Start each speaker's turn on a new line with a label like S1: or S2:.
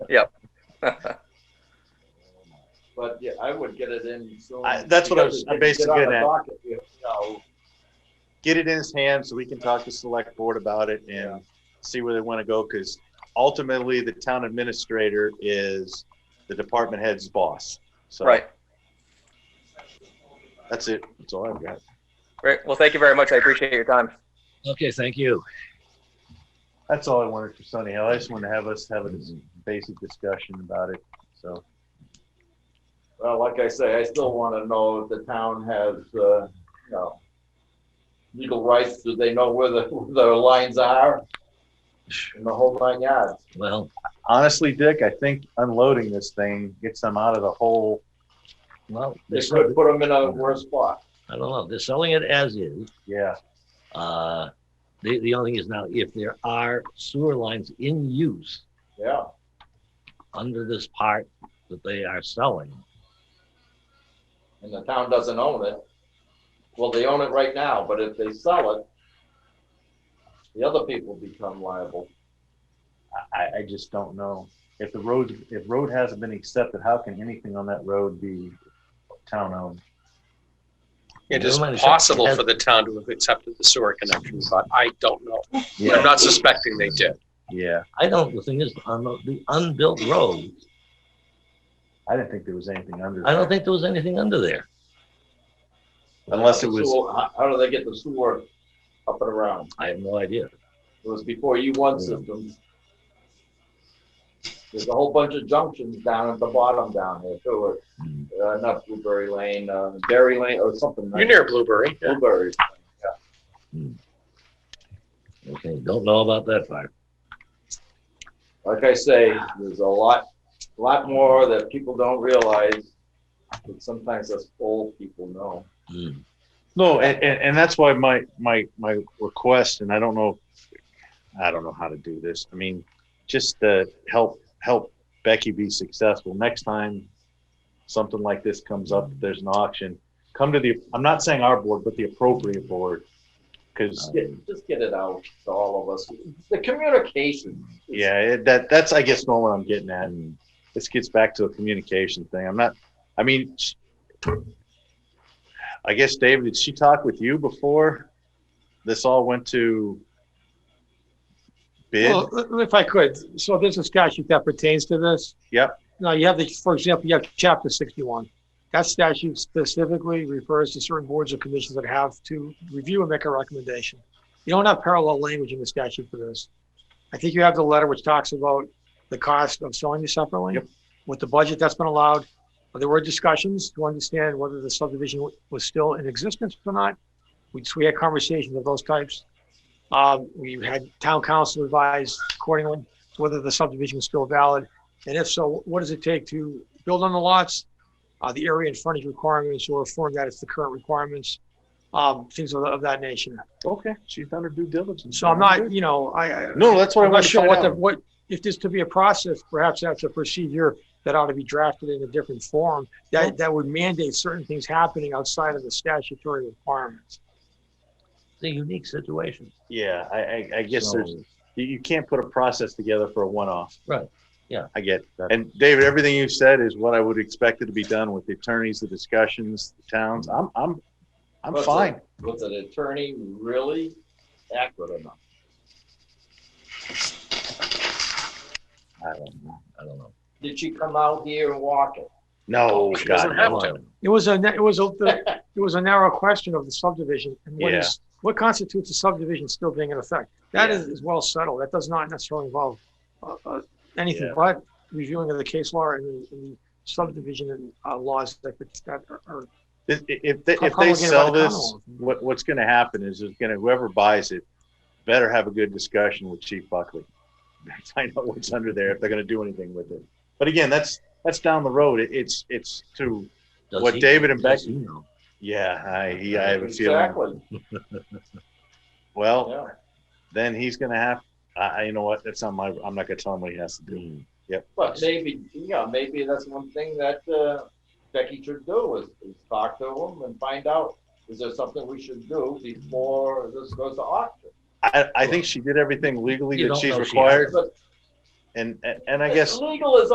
S1: Yep.
S2: But yeah, I would get it in soon.
S3: I- that's what I was- I'm basically
S2: Get on
S3: getting
S2: the
S3: at.
S2: docket, You know,
S3: get it in his hand so we can talk to select board about it
S2: Yeah.
S3: and see where they want to go, because ultimately the town administrator is the department head's boss. So
S1: Right.
S3: That's it. That's all I've got.
S1: Great. Well, thank you very much. I appreciate your time.
S4: Okay, thank you.
S3: That's all I wanted for Sunny Hill. I just want to have us have a dis- basic discussion about it. So
S2: Well, like I say, I still want to know if the town has, uh, you know, legal rights. Do they know where the, where their lines are? And the whole nine yards.
S4: Well,
S3: honestly, Dick, I think unloading this thing gets them out of the hole.
S4: well,
S2: They
S4: they're,
S2: could put them in a worse spot.
S4: I don't know. They're selling it as is.
S3: Yeah.
S4: Uh, the, the only thing is now if there are sewer lines in use
S2: Yeah.
S4: under this part that they are selling,
S2: And the town doesn't own it. Well, they own it right now, but if they sell it, the other people become liable.
S3: I, I just don't know. If the road, if road hasn't been accepted, how can anything on that road be town owned?
S5: It
S4: Never
S5: is
S4: mind, it's-
S5: possible
S4: it
S5: for the town to have accepted the sewer connection, but I don't know. I'm
S3: Yeah.
S5: not suspecting they did.
S3: Yeah.
S4: I don't, the thing is, on the, the unbuilt road,
S3: I didn't think there was anything under.
S4: I don't
S3: there.
S4: think there was anything under there.
S3: Unless it was,
S2: So how, how do they get the sewer up and around?
S4: I have no idea.
S2: It was before U one systems. There's a whole bunch of junctions down at the bottom down here too,
S4: Hmm.
S2: uh, not Blueberry Lane, uh, Berry Lane or something.
S5: You're near Blueberry. yeah.
S2: Blueberry.
S4: Okay, don't know about that part.
S2: Like I say, there's a lot, lot more that people don't realize. But sometimes us old people know.
S4: Hmm.
S3: no, and, and, and that's why my, my, my request, and I don't know, I don't know how to do this. I mean, just to help, help Becky be successful. Next time something like this comes up, there's an auction, come to the, I'm not saying our board, but the appropriate board. Cause
S2: Get- Just get it out to all of us. The communication.
S3: yeah, it, that, that's, I guess, more what I'm getting at. And this gets back to a communication thing. I'm not, I mean, sh- I guess, David, did she talk with you before this all went to bid?
S6: Well, if I could, so there's a statute that pertains to this.
S3: Yep.
S6: Now, you have the, for example, you have chapter sixty-one. That statute specifically refers to certain boards or commissions that have to review and make a recommendation. You don't have parallel language in the statute for this. I think you have the letter which talks about the cost of selling you separately.
S3: Yep.
S6: With the budget that's been allowed, there were discussions to understand whether the subdivision was still in existence or not. We, so we had conversations of those types. Um, we had town council advise accordingly whether the subdivision is still valid. And if so, what does it take to build on the lots? Uh, the area and frontage requirements or affirm that it's the current requirements, um, things of, of that nature.
S3: Okay, she's done her due diligence.
S6: So I'm not, you know, I, I-
S3: No, that's what I
S6: I'm
S3: want
S6: not
S3: to
S6: sure
S3: find
S6: what the,
S3: out.
S6: what, if there's to be a process, perhaps that's a procedure that ought to be drafted in a different form that, that would mandate certain things happening outside of the statutory requirements.
S4: It's a unique situation.
S3: Yeah, I, I, I guess
S4: So-
S3: there's, you, you can't put a process together for a one-off.
S4: Right, yeah.
S3: I get that. And David, everything you said is what I would expect it to be done with the attorneys, the discussions, the towns. I'm, I'm, I'm
S2: Was it-
S3: fine.
S2: Was an attorney really accurate enough?
S3: I don't know.
S4: I don't know.
S2: Did she come out here and walk it?
S3: No,
S5: She
S3: God,
S5: doesn't have
S4: Come
S5: to.
S4: on.
S6: It was a, na- it was a, the- it was a narrow question of the subdivision and what
S3: Yeah.
S6: is, what constitutes a subdivision still being in effect? That
S2: Yeah.
S6: is, is well settled. That does not necessarily involve, uh, uh, anything
S3: Yeah.
S6: but reviewing of the case law and the- and the subdivision and, uh, laws that, that are- are
S3: If, if they,
S6: How-
S3: if
S6: how
S3: they
S6: will we get
S3: sell
S6: about the
S3: this,
S6: tunnel?
S3: what, what's gonna happen is, is gonna, whoever buys it better have a good discussion with Chief Buckley. Find out what's under there, if they're gonna do anything with it. But again, that's, that's down the road. It- It's, it's to,
S4: Does
S3: What
S4: he-
S3: David and
S4: does
S3: Becky-
S4: he know?
S3: yeah, I, I have a feeling.
S2: Exactly,
S3: Well,
S2: yeah.
S3: then he's gonna have, I, I, you know what, that's not my, I'm not gonna tell him what he has to do.
S4: Hmm.
S2: But maybe, yeah, maybe that's one thing that uh, Becky should do is, is talk to them and find out, is there something we should do before this goes to auction?
S3: I, I think she did everything legally
S4: You
S3: that
S4: don't
S3: she's
S4: know she
S3: required.
S2: But
S7: and and I guess
S3: Legal is